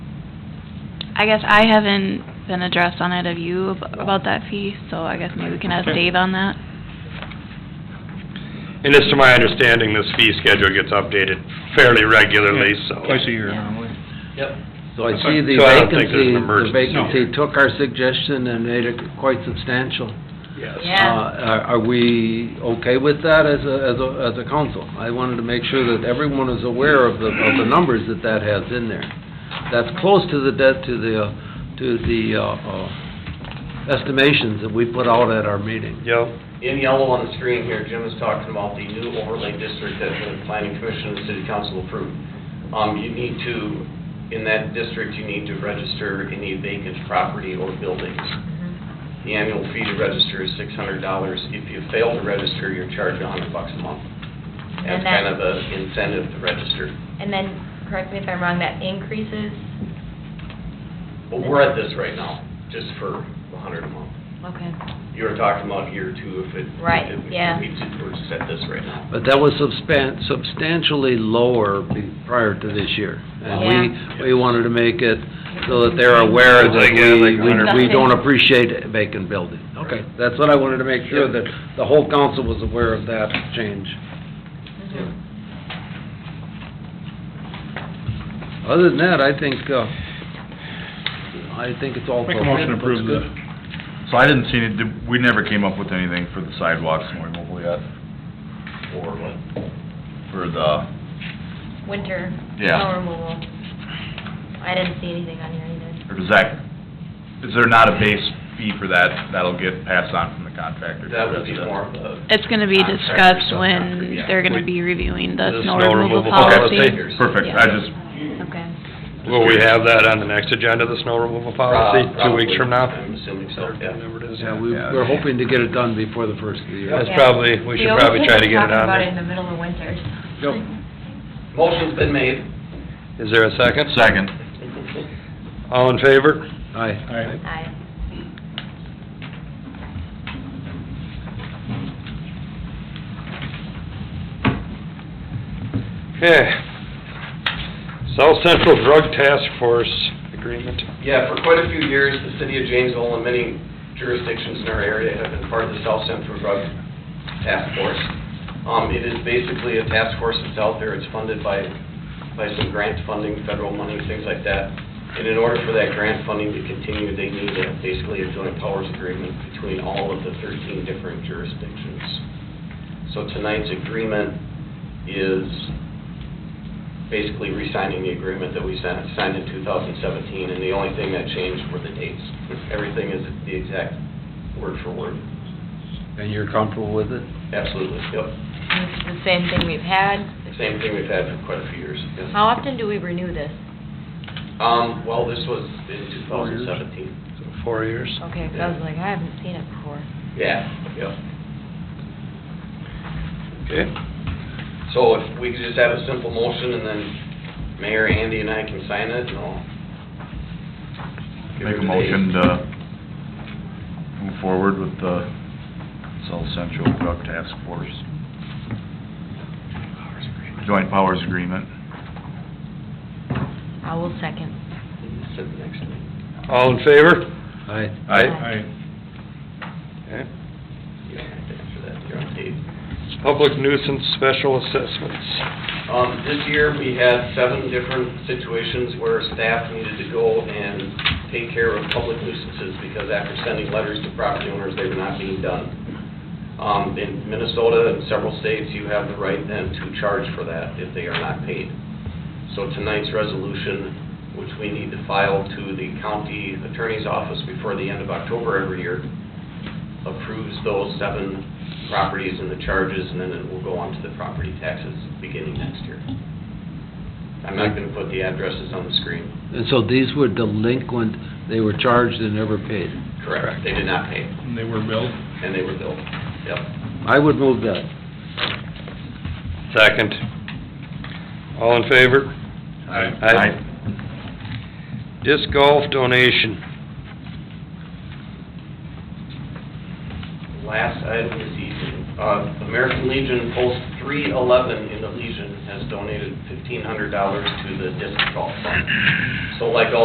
I guess I haven't been addressed on it of you ab- about that fee, so I guess maybe we can ask Okay. Dave on that. And this, to my understanding, this fee schedule gets updated fairly regularly, so. Twice a year normally. Yep. So I see the So I don't think there's vacancy, an the emergency vacancy here. took our suggestion and made it quite substantial. Yes. Yeah. Uh, Are are we okay with that as a, as a, as a council? I wanted to make sure that everyone is aware of the, of the numbers that that has in there. That's close to the debt, to the, uh, to the uh, uh, estimations that we put out at our meeting. Yep. In yellow on the screen here, Jim is talking about the new overlay district that the planning commission and the city council approved. Um, you need to, in that district, you need to register any vacant property or buildings. The annual fee to register is six hundred dollars. If you fail to register, you're charged a hundred bucks a month. That's And that- kind of a incentive to register. And then, correct me if I'm wrong, that increases, But we're at this right now, just for a hundred a month. okay. You were talking about year two, if it. Right, if we- yeah. we just- We're just at this right now. But that was substan- substantially lower be- prior to this year. And we, we wanted to make it so that they're aware that Like, yeah, we, like we- we 100%. don't appreciate vacant building. Okay, that's what I wanted to make sure, that the whole council was aware of that change. Mhm. Other than that, I think, uh, I think it's all. Make a motion to approve appropriate. the, Looks good. So I didn't see any, did- we never came up with anything for the sidewalks more mobile yet, Or what? for the, Winter Yeah. snow removal. I didn't see anything on here either. or does that, is there not a base fee for that, that'll get passed on from the contractor? to the That would be resident? more of a. It's gonna be Contractor, discussed subcontractor, when yeah. they're gonna be reviewing the The snow snow removal removal policy. policy. Perfect, I just, Okay. Will we have that on the next agenda, the snow removal policy, two weeks from now? Probably, I'm assuming so, yeah. Whatever it is. Yeah, we, we're hoping to get it done before the first of the year. That's probably, we should probably try to get it on there. We always end up talking about it in the middle of winter. Yep. Motion's been made. Is there a second? second, All in favor? Aye. Aye. Aye. Okay. South Central Drug Task Force Agreement. Yeah, for quite a few years, the city of Janesville and many jurisdictions in our area have been part of the South Central Drug Task Force. Um, it is basically a task force that's out there, it's funded by, by some grant funding, federal money, things like that. And in order for that grant funding to continue, they need a, basically a joint powers agreement between all of the thirteen different jurisdictions. So tonight's agreement is basically re-signing the agreement that we signed signed in 2017, and the only thing that changed were the dates. Everything is the exact word for word. And you're comfortable with it? Absolutely, yep. It's the same thing we've had. Same thing we've had for quite a few years. yes. How often do we renew this? Um, well, this was in 2017. So Four years. Okay, 'cause I was like, I haven't seen it before. Yeah, yep. Okay. So if we could just have a simple motion, and then Mayor, Andy, and I can sign it, and I'll... give make her a the motion dates. to move forward with the South Central Drug Task Force. Joint Powers Agreement. I will second. Sit next to me. All in favor? Aye. Aye. Aye. Okay. You don't have to answer that, you're on tape. Public nuisance special assessments. Um, this year, we had seven different situations where staff needed to go and take care of public nuisances because after sending letters to property owners, they were not being done. Um, in Minnesota and several states, you have the right then to charge for that if they are not paid. So tonight's resolution, which we need to file to the county attorney's office before the end of October every year, approves those seven properties and the charges, and then it will go on to the property taxes beginning next year. I'm not gonna put the addresses on the screen. And so these were delinquent, they were charged and never paid. Correct. They did not pay, And they were billed. and they were billed. Yep. I would move that. Second. All in favor? Aye. Disc golf donation. Last item this evening, uh, American Legion Post 311 in the Legion has donated $1,500 to the disc golf fund. So like all